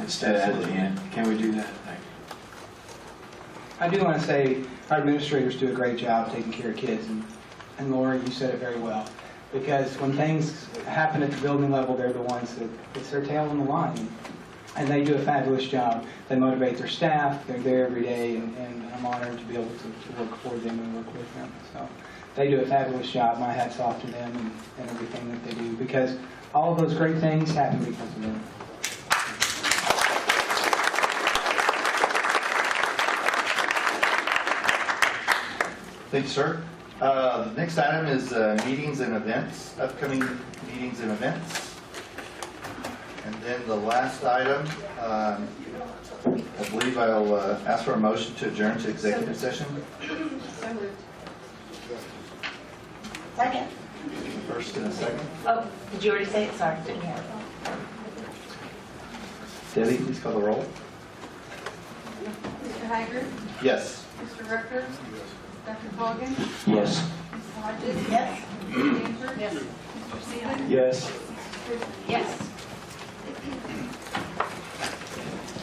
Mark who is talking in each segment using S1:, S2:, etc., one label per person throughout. S1: instead at the end. Can we do that? Thank you.
S2: I do want to say, our administrators do a great job taking care of kids, and- and Laura, you said it very well. Because when things happen at the building level, they're the ones that, it's their tail on the line. And they do a fabulous job. They motivate their staff, they're there every day, and and I'm honored to be able to to work for them and work with them. So they do a fabulous job, my hat's off to them and- and everything that they do, because all of those great things happen because of them.
S3: Thank you, sir. Uh, the Next item is uh, meetings and events, upcoming meetings and events. And then the last item, um, I believe I'll uh, ask for a motion to adjourn to executive session.
S4: So moved. Second.
S3: First and a second.
S4: Oh, did you already say it? Sorry, didn't hear.
S3: Debbie, please call the roll.
S5: Mr. Hager,
S3: Yes.
S5: Mr. Rucker, Dr. Hogan,
S1: Yes.
S5: Ms. Hodges,
S4: Yes?
S5: Mr. Danforth, Mr. Seaman.
S1: Yes.
S4: Yes.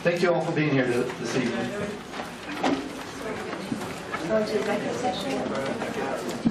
S3: Thank you all for being here th- this evening.
S4: Go to executive session.